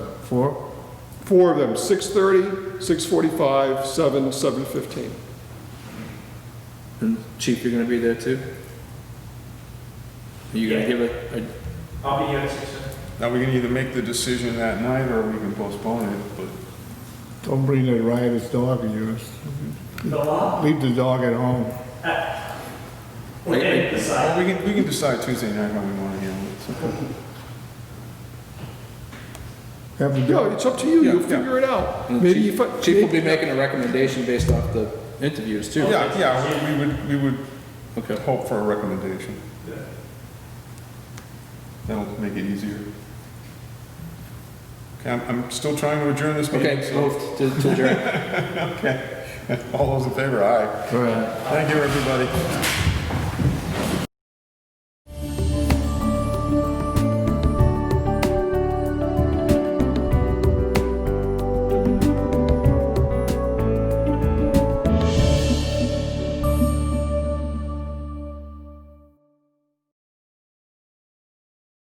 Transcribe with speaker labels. Speaker 1: Four?
Speaker 2: Four of them, 6:30, 6:45, 7, 7:15.
Speaker 1: And Chief, you're gonna be there too? Are you gonna give a, uh, a
Speaker 3: I'll be here at six thirty.
Speaker 4: Now, we can either make the decision that night or we can postpone it, but
Speaker 5: Don't bring that riotous dog of yours.
Speaker 3: The law?
Speaker 5: Leave the dog at home.
Speaker 3: Uh, We didn't decide.
Speaker 4: Well, we can, we can decide Tuesday night how we want to handle it. so.
Speaker 5: Have the
Speaker 2: No,
Speaker 5: dog,
Speaker 2: it's up to you,
Speaker 4: Yeah,
Speaker 2: you'll
Speaker 4: yeah.
Speaker 2: figure it out.
Speaker 1: And
Speaker 2: Maybe
Speaker 1: Chief-
Speaker 2: if I...
Speaker 1: Chief will be making a recommendation based off the interviews too.
Speaker 4: Yeah, yeah, we- we would, we would
Speaker 1: Okay.
Speaker 4: hope for a recommendation. That'll make it easier. Okay, I'm, I'm still trying to adjourn this meeting.
Speaker 1: Okay,
Speaker 4: so-
Speaker 1: moved to to adjourn.
Speaker 4: Okay. All those in favor, aye.
Speaker 5: right.
Speaker 4: Thank you, everybody.